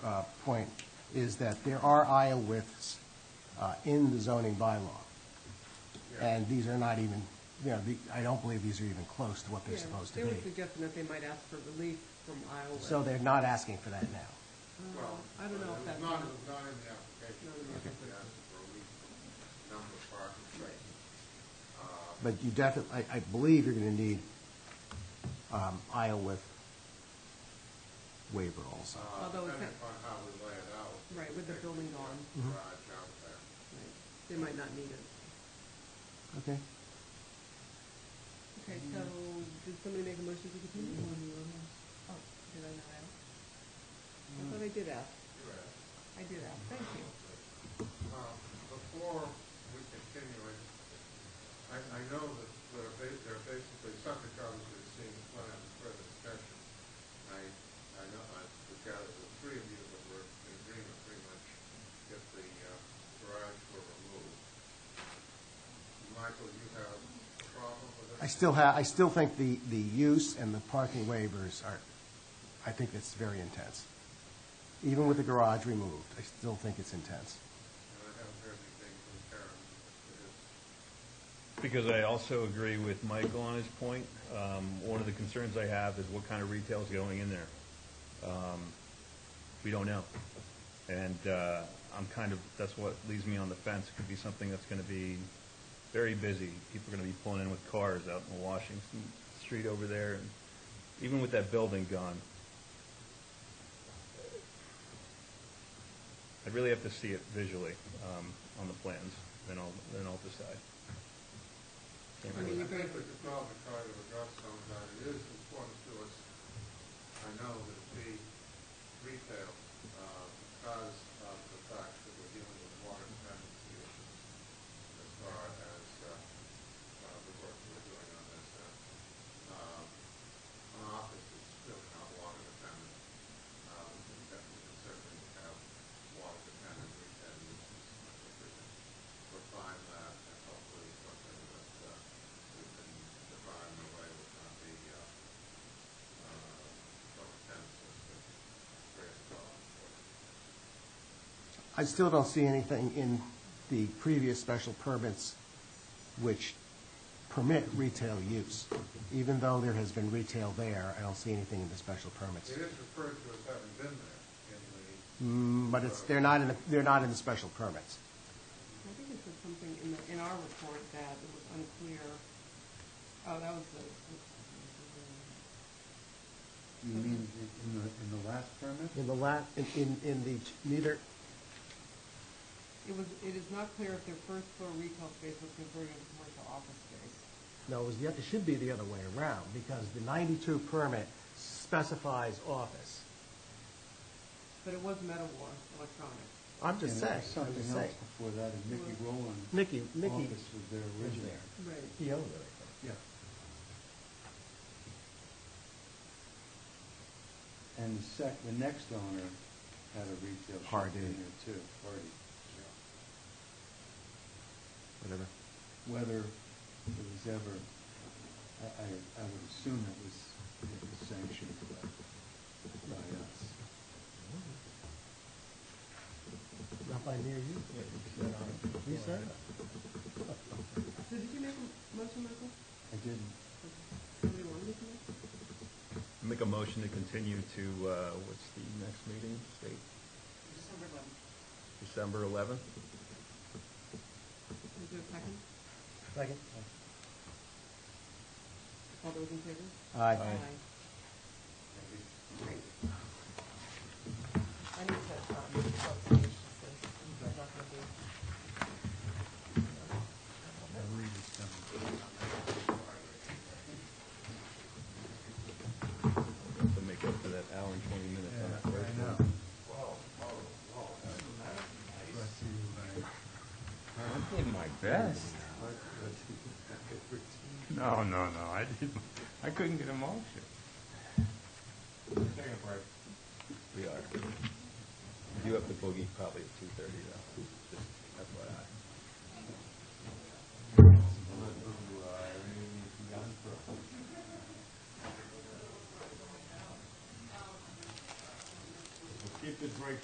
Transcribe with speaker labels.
Speaker 1: uh, point is that there are aisle widths uh, in the zoning bylaw. And these are not even, you know, the- I don't believe these are even close to what they're
Speaker 2: Yeah,
Speaker 1: supposed
Speaker 2: They
Speaker 1: to
Speaker 2: were
Speaker 1: be.
Speaker 2: suggesting that they might ask for relief from Iowa.
Speaker 1: So they're not asking for that now.
Speaker 3: Well,
Speaker 2: I don't know if
Speaker 3: It was
Speaker 2: that's-
Speaker 3: not, it was not in the application.
Speaker 2: Not in the
Speaker 3: They asked for a lease number of parking spaces. Uh,
Speaker 1: But you definitely, I believe you're going to need um, aisle width waiver also.
Speaker 3: uh,
Speaker 2: Although it's
Speaker 3: Depending
Speaker 2: not-
Speaker 3: upon how we lay it out.
Speaker 2: Right, with the building gone.
Speaker 3: Garage out there.
Speaker 2: Right. They might not need it.
Speaker 1: Okay?
Speaker 2: Okay, so did somebody make a motion to continue? Oh, did I not ask? I thought I did ask.
Speaker 3: You asked.
Speaker 2: I did ask, thank you.
Speaker 3: Um, Before we continue, I, I I know that there are ba- there are basically subject others who've seen the plan for discussion. I, I know, I would gather the three of you that were in agreement pretty much if the uh, garage were removed. Michael, you have a problem with it?
Speaker 1: I still have, I still think the, the use and the parking waivers are, I think it's very intense. Even with the garage removed, I still think it's intense.
Speaker 3: And I haven't heard anything from Karen. It is-
Speaker 4: Because I also agree with Michael on his point. Um, One of the concerns I have is what kind of retail is going in there. Um, We don't know. And uh, I'm kind of, that's what leaves me on the fence. It Could be something that's going to be very busy. People are going to be pulling in with cars out in Washington Street over there. And Even with that building gone, I really have to see it visually um, on the plans, then I'll, then I'll decide. Can't
Speaker 2: I
Speaker 3: I
Speaker 2: mean,
Speaker 4: really-
Speaker 2: you're
Speaker 3: think
Speaker 2: going-
Speaker 3: we could probably try to address some of that. It is important to us, I know, that it be retail uh, because of the fact that we're dealing with water dependency issues as far as uh, uh, the work we're doing on this. uh, um, An office is really not water dependent. Uh, We can definitely can certainly have water dependent retail uses. I think we can refine that and hopefully something that uh, we can define in a way that's not be uh, uh, so intense as to create a problem for it.
Speaker 1: I still don't see anything in the previous special permits which permit retail use. Even though there has been retail there, I don't see anything in the special permits.
Speaker 3: It is referred to as having been there in
Speaker 1: Mm,
Speaker 3: the,
Speaker 1: But it's, they're not in, the they're not in the special permits.
Speaker 2: I think it said something in the, in our report that it was unclear. Oh, that was the,
Speaker 5: You mean i- in the, in the last permit?
Speaker 1: In the la, in, in, in the, neither,
Speaker 2: it was, it is not clear if their first floor retail space was converted into commercial office space.
Speaker 1: No, it was the, it should be the other way around, because the 92 permit specifies office.
Speaker 2: But it was Metawar Electronics.
Speaker 1: I'm just
Speaker 5: And
Speaker 1: saying, I'm
Speaker 5: there was
Speaker 1: just
Speaker 5: Something
Speaker 1: saying.
Speaker 5: else before that, and Mickey Rowland.
Speaker 1: Mickey, Mickey
Speaker 5: Office was there
Speaker 1: was
Speaker 5: originally.
Speaker 1: there.
Speaker 2: Right.
Speaker 1: He owned it,
Speaker 5: Yeah. And the sec, the next owner had a retail shop
Speaker 1: Hardy.
Speaker 5: in there too, Hardy.
Speaker 3: you know,
Speaker 1: whatever.
Speaker 5: Whether it was ever, I, I, I would assume it was, it was sanctioned by, by us.
Speaker 1: Not by near you. He said it.
Speaker 2: So did you make a motion, Michael?
Speaker 5: I didn't,
Speaker 2: Somebody wanted to make?
Speaker 4: Make a motion to continue to, uh, what's the next meeting date?
Speaker 2: December eleventh.
Speaker 4: December 11th?
Speaker 2: Is there a second?
Speaker 1: Second?
Speaker 2: All those in favor?
Speaker 1: Aye.
Speaker 3: maybe
Speaker 2: Great. I need to, um, close the issue, so I'm not gonna do.
Speaker 4: To make up for that hour and 20 minutes on that first one.
Speaker 6: I did my best. No, no, no, I didn't, I couldn't get a motion.
Speaker 4: We are. You have to boogie probably at 2:30 though, just FYI.
Speaker 7: If it's right